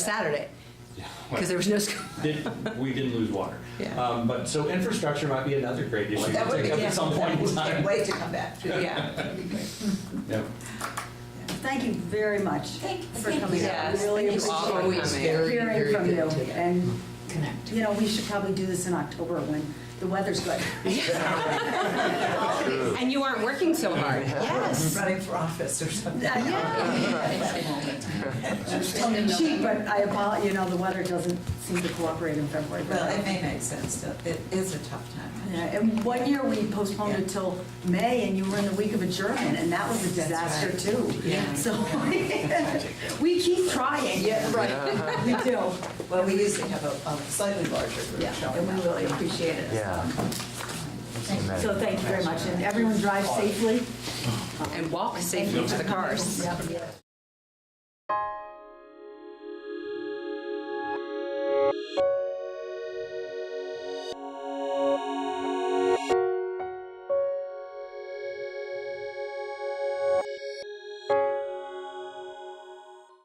Saturday, because there was no school. Did- We didn't lose water. Yeah. Um, But, so infrastructure might be another great issue That to would be, take up at some point in can't time. wait to come back to. Yeah. Yeah. Thank you very much for coming out. Yes, Really thank you all for appreciate coming. hearing from you. And, Connect. you know, we should probably do this in October when the weather's good. And you aren't working so hard. Yes. Running for office or something. It's cheap, but I apologize, you know, the weather doesn't seem to cooperate in February. but- Well, it may make sense, though. It is a tough time. Yeah, And one year we postponed it till May and you were in the week of adjournment and that was a That's disaster right. too. Yeah. So we keep trying. Yeah, right. We do. Well, we usually have a a slightly larger group Yeah, showing and we up. really appreciate it. Yeah. So thank you very much. And everyone drive safely. And walk safely to the cars. Yep.